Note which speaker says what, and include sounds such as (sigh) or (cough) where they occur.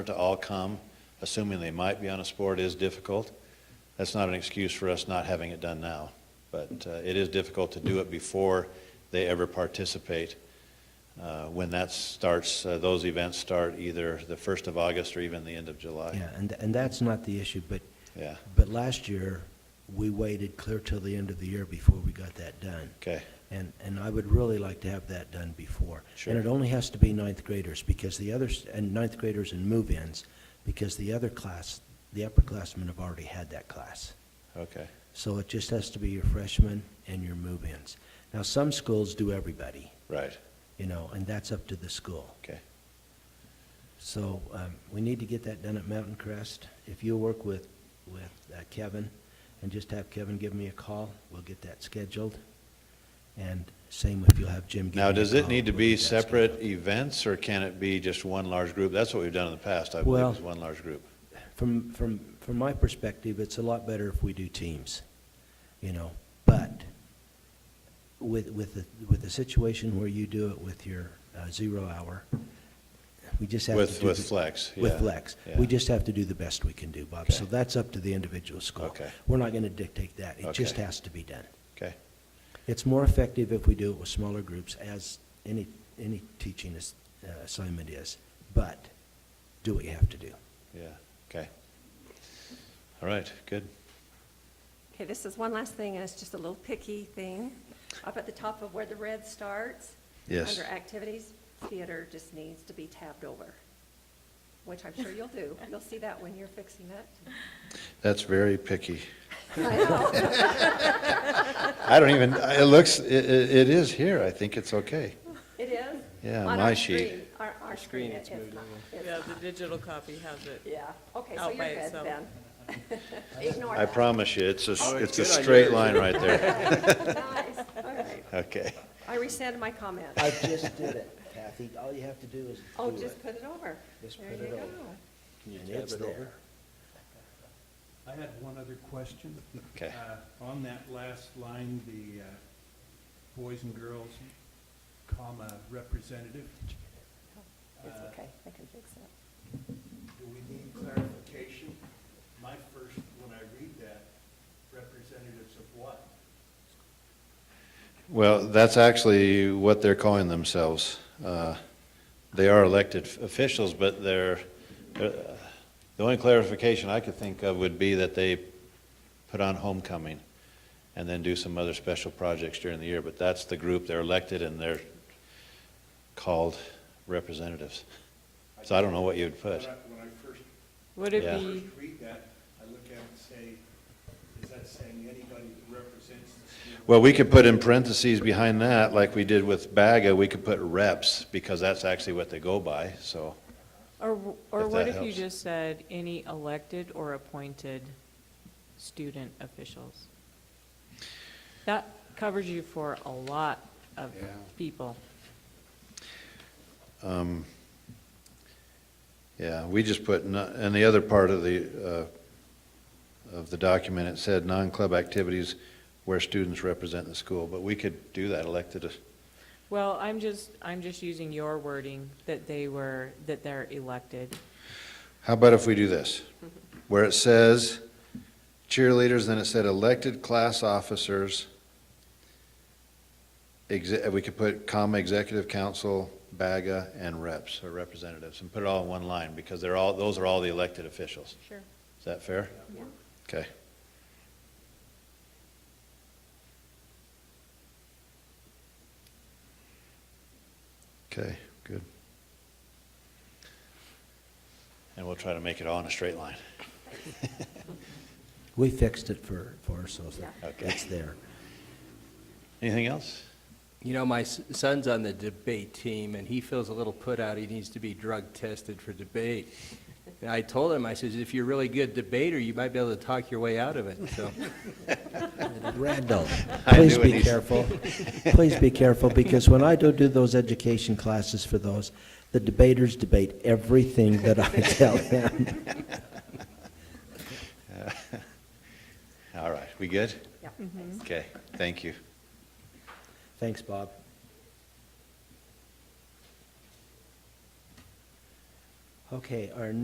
Speaker 1: to all come, assuming they might be on a sport is difficult. That's not an excuse for us not having it done now, but uh, it is difficult to do it before they ever participate. Uh, When that starts, uh, those events start either the 1st of August or even the end of July.
Speaker 2: Yeah, and, and that's not the issue, but,
Speaker 1: Yeah,
Speaker 2: but last year, we waited clear till the end of the year before we got that done.
Speaker 1: okay,
Speaker 2: And, and I would really like to have that done before.
Speaker 1: Sure.
Speaker 2: And it only has to be ninth graders, because the others, and ninth graders and move-ins, because the other class, the upperclassmen have already had that class.
Speaker 1: okay,
Speaker 2: So it just has to be your freshmen and your move-ins. Now, some schools do everybody,
Speaker 1: right,
Speaker 2: you know, and that's up to the school.
Speaker 1: okay.
Speaker 2: So um, we need to get that done at Mountain Crest. If you'll work with, with uh, Kevin, and just have Kevin give me a call, we'll get that scheduled. And same if you'll have Jim give me a
Speaker 1: Now,
Speaker 2: call.
Speaker 1: does it need to
Speaker 2: we'll
Speaker 1: be
Speaker 2: get that
Speaker 1: separate
Speaker 2: scheduled.
Speaker 1: events, or can it be just one large group? That's what we've done in the past, I believe,
Speaker 2: Well-
Speaker 1: is one large group.
Speaker 2: From, from, from my perspective, it's a lot better if we do teams, you know? But with, with, the- with the situation where you do it with your uh, zero hour, we just have to
Speaker 1: With-
Speaker 2: do
Speaker 1: with
Speaker 2: the-
Speaker 1: flex, yeah,
Speaker 2: With flex.
Speaker 1: yeah.
Speaker 2: We just have to do the best we can do, Bob. So
Speaker 1: Okay.
Speaker 2: that's up to the individual school.
Speaker 1: Okay.
Speaker 2: We're not going to dictate that. It just
Speaker 1: Okay.
Speaker 2: has to be done.
Speaker 1: Okay,
Speaker 2: It's more effective if we do it with smaller groups, as any, any teaching ass- uh, assignment is. But do what you have to do.
Speaker 1: yeah, okay. All right, good.
Speaker 3: Okay, this is one last thing, and it's just a little picky thing. Up at the top of where the red starts.
Speaker 1: Yes.
Speaker 3: Under activities, theater just needs to be tabbed over, which I'm sure you'll do. You'll see that when you're fixing it.
Speaker 1: That's very picky.
Speaker 3: (laughs) I know.
Speaker 1: (laughs) I don't even, it looks, it, it is here, I think it's okay.
Speaker 3: It is.
Speaker 1: Yeah,
Speaker 3: On
Speaker 1: my
Speaker 3: our
Speaker 1: sheet.
Speaker 3: screen, Our, our screen, it's not. it's
Speaker 4: Yeah,
Speaker 3: not.
Speaker 4: the digital copy has it.
Speaker 3: Yeah, okay, so
Speaker 4: Out by
Speaker 3: you're good
Speaker 4: itself.
Speaker 3: then. (laughs) Ignore
Speaker 1: I
Speaker 3: that.
Speaker 1: promise you, it's a, it's a straight line right there.
Speaker 3: (laughs) Nice, all right.
Speaker 1: Okay,
Speaker 3: I rescind my comment.
Speaker 2: I just did it, Kathy. All you have to do is
Speaker 3: Oh, just put it over.
Speaker 2: Just
Speaker 3: There
Speaker 2: put
Speaker 3: you
Speaker 2: it over.
Speaker 3: go.
Speaker 2: And it's there.
Speaker 5: I had one other question.
Speaker 1: Okay.
Speaker 5: Uh, On that last line, the uh, boys and girls, comma, representative,
Speaker 3: It's
Speaker 5: Uh,
Speaker 3: okay, I can fix it.
Speaker 5: do we need clarification? My first, when I read that, representatives of what?
Speaker 1: well, that's actually what they're calling themselves. Uh, They are elected officials, but they're, uh, the only clarification I could think of would be that they put on homecoming and then do some other special projects during the year, but that's the group, they're elected and they're called representatives. So I don't know what you would
Speaker 5: When I
Speaker 1: put.
Speaker 5: when I first,
Speaker 4: Would it
Speaker 1: Yeah.
Speaker 4: be,
Speaker 5: first read that, I look at it and say, is that saying anybody that represents the school?
Speaker 1: Well, we could put in parentheses behind that, like we did with BAGA, we could put reps, because that's actually what they go by, so,
Speaker 4: or, or
Speaker 1: If
Speaker 4: what
Speaker 1: that
Speaker 4: if you
Speaker 1: helps.
Speaker 4: just said any elected or appointed student officials? That covers you for a lot of people.
Speaker 1: Um, yeah, we just put, no- and the other part of the, uh, of the document, it said non-club activities where students represent the school, but we could do that elected,
Speaker 4: Well, I'm just, I'm just using your wording that they were, that they're elected.
Speaker 1: how about if we do this? Where it says cheerleaders, then it said elected class officers, exe- we could put comma, executive council, BAGA, and reps, or representatives, and put it all in one line, because they're all, those are all the elected officials.
Speaker 4: Sure.
Speaker 1: Is that fair?
Speaker 3: Yeah.
Speaker 1: Okay. Okay, good. And we'll try to make it all in a straight line.
Speaker 2: We fixed it for, for ourselves.
Speaker 3: Yeah.
Speaker 1: Okay.
Speaker 2: It's there.
Speaker 1: Anything else?
Speaker 6: You know, my s- son's on the debate team, and he feels a little put out. He needs to be drug tested for debate. And I told him, I says, if you're a really good debater, you might be able to talk your way out of it, so.
Speaker 2: Randall,
Speaker 1: I
Speaker 2: please
Speaker 1: knew what
Speaker 2: be
Speaker 1: he-
Speaker 2: careful. Please be careful, because when I do do those education classes for those, the debaters debate everything that I tell them.
Speaker 1: All right, we good?
Speaker 3: Yeah,
Speaker 1: Okay, thank you.
Speaker 2: Thanks, Bob. Okay, our